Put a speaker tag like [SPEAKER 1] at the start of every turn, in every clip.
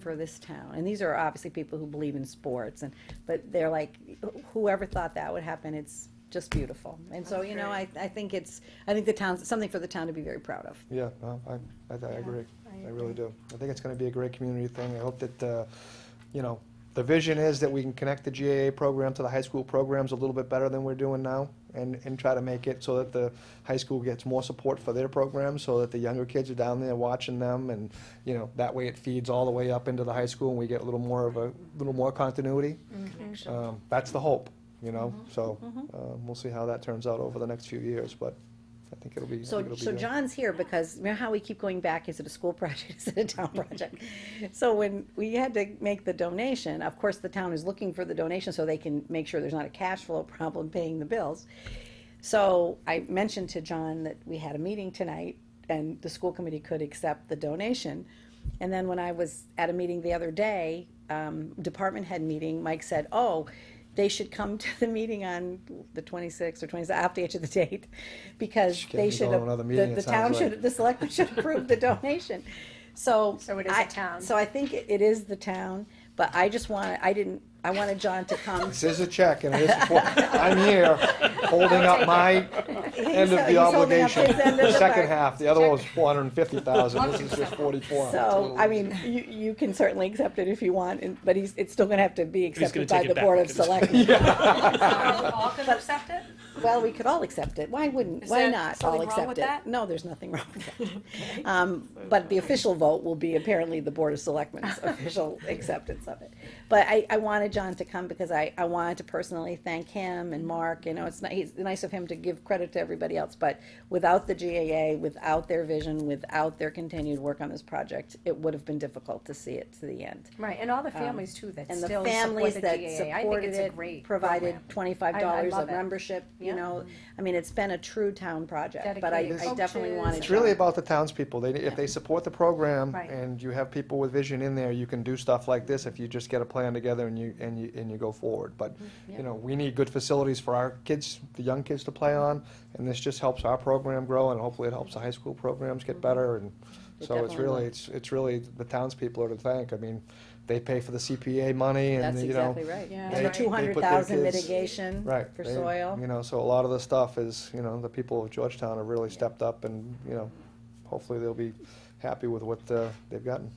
[SPEAKER 1] for this town. And these are obviously people who believe in sports and, but they're like, whoever thought that would happen, it's just beautiful. And so, you know, I, I think it's, I think the town's, something for the town to be very proud of.
[SPEAKER 2] Yeah, no, I, I, I agree. I really do. I think it's gonna be a great community thing. I hope that, uh, you know, the vision is that we can connect the GAA program to the high school programs a little bit better than we're doing now and, and try to make it so that the high school gets more support for their programs, so that the younger kids are down there watching them and, you know, that way it feeds all the way up into the high school and we get a little more of a, little more continuity. Um, that's the hope, you know, so, um, we'll see how that turns out over the next few years, but I think it'll be, I think
[SPEAKER 1] So,
[SPEAKER 2] it'll be
[SPEAKER 1] so
[SPEAKER 2] good.
[SPEAKER 1] John's here because, you know how we keep going back, is it a school project, is it a town project? So when we had to make the donation, of course, the town is looking for the donation so they can make sure there's not a cash flow problem paying the bills. So I mentioned to John that we had a meeting tonight and the school committee could accept the donation. And then when I was at a meeting the other day, um, department head meeting, Mike said, oh, they should come to the meeting on the twenty-sixth or twenty-seventh, after each of the date, because
[SPEAKER 2] Getting
[SPEAKER 1] they
[SPEAKER 2] me
[SPEAKER 1] should,
[SPEAKER 2] going another
[SPEAKER 1] the,
[SPEAKER 2] meeting,
[SPEAKER 1] the
[SPEAKER 2] it
[SPEAKER 1] town
[SPEAKER 2] sounds
[SPEAKER 1] should,
[SPEAKER 2] like.
[SPEAKER 1] the selectmen should approve the donation. So.
[SPEAKER 3] So it is a
[SPEAKER 1] I-
[SPEAKER 3] town.
[SPEAKER 1] So I think it it is the town, but I just wanted, I didn't, I wanted John to come.
[SPEAKER 2] This is a check, and it is, for- I'm here, holding up my end of
[SPEAKER 1] He's holding
[SPEAKER 2] the
[SPEAKER 1] up
[SPEAKER 2] obligation,
[SPEAKER 1] his end of
[SPEAKER 2] the
[SPEAKER 1] the
[SPEAKER 2] second
[SPEAKER 1] bargain.
[SPEAKER 2] half, the other one was four hundred and fifty thousand, this is just forty-four.
[SPEAKER 1] So, I mean, you, you can certainly accept it if you want, and- but he's, it's still gonna have to be
[SPEAKER 4] gonna
[SPEAKER 1] accepted by
[SPEAKER 4] take it
[SPEAKER 1] the
[SPEAKER 4] back.
[SPEAKER 1] Board of Selectmen.
[SPEAKER 3] All can accept it?
[SPEAKER 1] Well, we could all accept it. Why wouldn't,
[SPEAKER 3] Is
[SPEAKER 1] why
[SPEAKER 3] there
[SPEAKER 1] not
[SPEAKER 3] something
[SPEAKER 1] all
[SPEAKER 3] wrong
[SPEAKER 1] accept
[SPEAKER 3] with
[SPEAKER 1] it?
[SPEAKER 3] that?
[SPEAKER 1] No, there's nothing wrong with that. Um, but the official vote will be apparently the Board of Selectmen's official acceptance of it. But I, I wanted John to come because I, I wanted to personally thank him and Mark, you know, it's nice, it's nice of him to give credit to everybody else, but without the GAA, without their vision, without their continued work on this project, it would have been difficult to see it to the end.
[SPEAKER 3] Right, and all the families too that
[SPEAKER 1] Um, And the
[SPEAKER 3] still
[SPEAKER 1] families
[SPEAKER 3] support the
[SPEAKER 1] that
[SPEAKER 3] GAA. I think
[SPEAKER 1] supported
[SPEAKER 3] it's a
[SPEAKER 1] it
[SPEAKER 3] great
[SPEAKER 1] provided
[SPEAKER 3] program.
[SPEAKER 1] twenty-five
[SPEAKER 3] I- I
[SPEAKER 1] dollars
[SPEAKER 3] love
[SPEAKER 1] of
[SPEAKER 3] it.
[SPEAKER 1] membership, you
[SPEAKER 3] Yeah.
[SPEAKER 1] know? I mean, it's been a true town project, but I,
[SPEAKER 3] Dedicated
[SPEAKER 1] I definitely
[SPEAKER 3] coaches.
[SPEAKER 1] wanted.
[SPEAKER 2] It's really
[SPEAKER 1] John.
[SPEAKER 2] about the townspeople, they, if they support the program,
[SPEAKER 3] Right.
[SPEAKER 2] and you have people with vision in there, you can do stuff like this, if you just get a plan together and you, and you, and you go forward, but,
[SPEAKER 1] Mm-hmm.
[SPEAKER 2] you know, we need good facilities for our kids, the young kids to play on, and this just helps our program grow, and hopefully it helps the high school programs get better, and
[SPEAKER 1] Mm-hmm. It
[SPEAKER 2] so it's
[SPEAKER 1] definitely
[SPEAKER 2] really,
[SPEAKER 1] will.
[SPEAKER 2] it's, it's really the townspeople are to thank, I mean, they pay for the CPA money, and,
[SPEAKER 1] That's
[SPEAKER 2] you know.
[SPEAKER 1] exactly right.
[SPEAKER 3] Yeah.
[SPEAKER 1] And the
[SPEAKER 3] They-
[SPEAKER 1] two
[SPEAKER 2] they
[SPEAKER 1] hundred
[SPEAKER 2] put their
[SPEAKER 1] thousand
[SPEAKER 2] kids-
[SPEAKER 1] mitigation
[SPEAKER 2] Right.
[SPEAKER 1] for
[SPEAKER 2] they-
[SPEAKER 1] soil.
[SPEAKER 2] You know, so a lot of the stuff is, you know, the people of Georgetown have really stepped up and, you know, hopefully they'll be happy with what uh, they've gotten.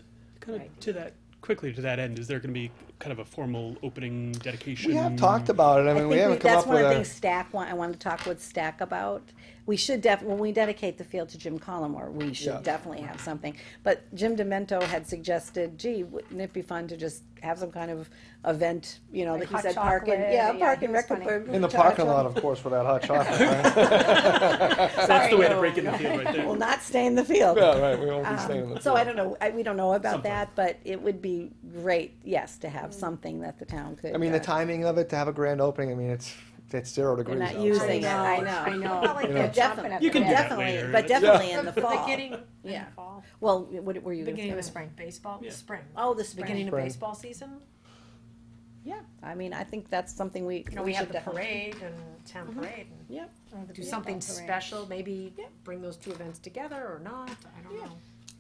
[SPEAKER 4] Kind of
[SPEAKER 1] Right.
[SPEAKER 4] to that, quickly to that end, is there going to be kind of a formal opening dedication?
[SPEAKER 2] We have talked about it, I
[SPEAKER 1] I
[SPEAKER 2] mean,
[SPEAKER 1] think
[SPEAKER 2] we
[SPEAKER 1] we-
[SPEAKER 2] haven't come
[SPEAKER 1] that's
[SPEAKER 2] up
[SPEAKER 1] one
[SPEAKER 2] with
[SPEAKER 1] of the things
[SPEAKER 2] a,
[SPEAKER 1] Stack, want- I wanted to talk with Stack about. We should def, when we dedicate the field to Jim Collmore, we
[SPEAKER 2] Yeah.
[SPEAKER 1] should definitely have something. But Jim Demento had suggested, gee, wouldn't it be fun to just have some kind of event, you know,
[SPEAKER 3] Like
[SPEAKER 1] that he
[SPEAKER 3] hot
[SPEAKER 1] said park and,
[SPEAKER 3] chocolate,
[SPEAKER 1] yeah,
[SPEAKER 3] yeah,
[SPEAKER 1] park
[SPEAKER 3] he
[SPEAKER 1] and
[SPEAKER 3] was
[SPEAKER 1] rec. and
[SPEAKER 3] funny.
[SPEAKER 1] for-
[SPEAKER 2] in the
[SPEAKER 1] hot
[SPEAKER 2] parking lot,
[SPEAKER 1] chocolate.
[SPEAKER 2] of course, for that hot chocolate, right?
[SPEAKER 4] That's the way to break in the field right
[SPEAKER 1] Will
[SPEAKER 4] there.
[SPEAKER 1] not stay in the field.
[SPEAKER 2] Yeah, right, we won't be staying in the.
[SPEAKER 1] Um, So I don't know, I, we don't know about
[SPEAKER 4] Something.
[SPEAKER 1] that, but it would be great, yes, to have something that the town could.
[SPEAKER 2] I mean, the
[SPEAKER 1] uh,
[SPEAKER 2] timing of it, to have a grand opening, I mean, it's, it's zero degrees
[SPEAKER 1] not
[SPEAKER 2] out. so-
[SPEAKER 1] using it. I
[SPEAKER 3] Oh, I
[SPEAKER 1] know.
[SPEAKER 3] know. I know.
[SPEAKER 2] You
[SPEAKER 3] Like
[SPEAKER 2] know.
[SPEAKER 3] they're jumping at
[SPEAKER 1] Definitely,
[SPEAKER 4] You
[SPEAKER 3] the
[SPEAKER 4] can do
[SPEAKER 3] bit.
[SPEAKER 4] that
[SPEAKER 1] definitely,
[SPEAKER 4] later.
[SPEAKER 1] but
[SPEAKER 4] That's-
[SPEAKER 1] definitely in the fall.
[SPEAKER 3] Beginning,
[SPEAKER 1] Yeah.
[SPEAKER 3] yeah, fall,
[SPEAKER 1] Well, what were you gonna
[SPEAKER 3] beginning
[SPEAKER 1] say?
[SPEAKER 3] of spring, baseball,
[SPEAKER 4] Yeah.
[SPEAKER 3] spring.
[SPEAKER 1] Oh, the spring.
[SPEAKER 3] Beginning of
[SPEAKER 2] Spring.
[SPEAKER 3] baseball season,
[SPEAKER 1] Yeah, I mean, I think that's something we.
[SPEAKER 3] you know, we have
[SPEAKER 1] should
[SPEAKER 3] the
[SPEAKER 1] definitely- Mm-hmm.
[SPEAKER 3] parade and town parade. and
[SPEAKER 1] Yeah.
[SPEAKER 3] Do something special, maybe
[SPEAKER 1] Yeah.
[SPEAKER 3] bring those two events together or not, I don't
[SPEAKER 1] Yeah.
[SPEAKER 3] know.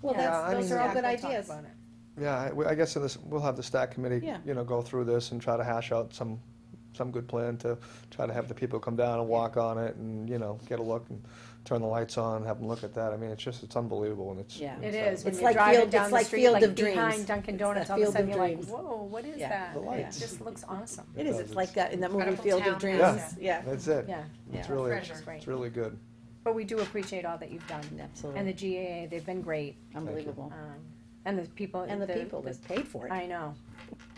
[SPEAKER 1] Well,
[SPEAKER 3] Yeah,
[SPEAKER 1] that's,
[SPEAKER 2] I
[SPEAKER 1] those
[SPEAKER 2] mean-
[SPEAKER 1] are all good
[SPEAKER 3] We'll talk
[SPEAKER 1] ideas.
[SPEAKER 3] about it.
[SPEAKER 2] Yeah, I, we- I guess in this, we'll have the stack committee,
[SPEAKER 1] Yeah.
[SPEAKER 2] you know, go through this and try to hash out some, some good plan to try to have the people come down and walk on it and, you know, get a look and turn the lights on, have them look at that. I mean, it's just, it's unbelievable and it's.
[SPEAKER 1] Yeah.
[SPEAKER 3] It
[SPEAKER 2] uh,
[SPEAKER 3] is, when
[SPEAKER 1] It's
[SPEAKER 3] you're
[SPEAKER 1] like
[SPEAKER 3] driving
[SPEAKER 1] Field-
[SPEAKER 3] down
[SPEAKER 1] it's
[SPEAKER 3] the
[SPEAKER 1] like
[SPEAKER 3] street,
[SPEAKER 1] Field
[SPEAKER 3] like
[SPEAKER 1] of Dreams.
[SPEAKER 3] behind Dunkin'
[SPEAKER 1] It's that
[SPEAKER 3] Donuts, all of a
[SPEAKER 1] Field
[SPEAKER 3] sudden
[SPEAKER 1] of
[SPEAKER 3] you're like,
[SPEAKER 1] Dreams.
[SPEAKER 3] whoa, what is
[SPEAKER 1] Yeah.
[SPEAKER 3] that?
[SPEAKER 2] The lights.
[SPEAKER 3] It just looks awesome.
[SPEAKER 1] It is,
[SPEAKER 2] does,
[SPEAKER 1] it's like that in that movie
[SPEAKER 3] Incredible
[SPEAKER 1] Field of
[SPEAKER 3] Town
[SPEAKER 1] Dreams,
[SPEAKER 3] House.
[SPEAKER 1] yeah.
[SPEAKER 2] That's it.
[SPEAKER 3] Yeah,
[SPEAKER 2] It's
[SPEAKER 1] Yeah.
[SPEAKER 2] really,
[SPEAKER 3] Treasure.
[SPEAKER 2] it's really good.
[SPEAKER 3] but we do appreciate all that you've done. And the
[SPEAKER 1] Absolutely,
[SPEAKER 3] GAA, they've been great,
[SPEAKER 1] unbelievable.
[SPEAKER 3] um, and the people.
[SPEAKER 1] And the people that paid for it.
[SPEAKER 3] I know,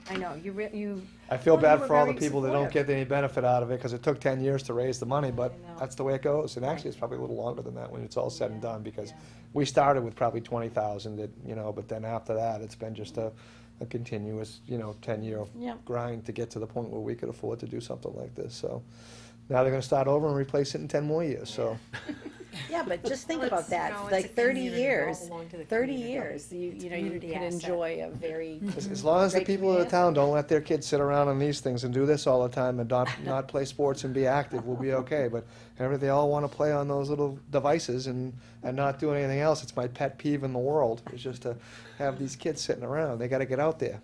[SPEAKER 3] I know, you re, you,
[SPEAKER 2] I feel
[SPEAKER 3] Well, you
[SPEAKER 2] bad
[SPEAKER 3] were
[SPEAKER 2] for all the
[SPEAKER 3] very
[SPEAKER 2] people that don't
[SPEAKER 3] supportive.
[SPEAKER 2] get any benefit out of it, cause it took ten years to raise the money, but
[SPEAKER 1] I know.
[SPEAKER 2] that's the way it goes. And actually, it's probably a little longer than that when it's all said and done, because we started with probably twenty thousand, that, you know, but then after that, it's been just a, a continuous, you know, ten-year
[SPEAKER 1] Yeah.
[SPEAKER 2] grind to get to the point where we could afford to do something like this, so. Now they're gonna start over and replace it in ten more years, so.
[SPEAKER 1] Yeah, but just think
[SPEAKER 5] Well,
[SPEAKER 1] about
[SPEAKER 5] it's-
[SPEAKER 1] that,
[SPEAKER 5] no, it's a
[SPEAKER 1] like thirty
[SPEAKER 5] community. It all
[SPEAKER 1] years,
[SPEAKER 5] belonged to the
[SPEAKER 1] thirty
[SPEAKER 5] community.
[SPEAKER 1] years, you, you know, you
[SPEAKER 3] Community
[SPEAKER 1] can
[SPEAKER 3] asset.
[SPEAKER 1] enjoy a very.
[SPEAKER 2] As, as long as the
[SPEAKER 1] Great
[SPEAKER 2] people of the
[SPEAKER 1] community.
[SPEAKER 2] town don't let their kids sit around on these things and do this all the time and not, not play sports and be active, we'll be okay. But however, they all wanna play on those little devices and, and not do anything else. It's my pet peeve in the world, is just to have these kids sitting around. They gotta get out there.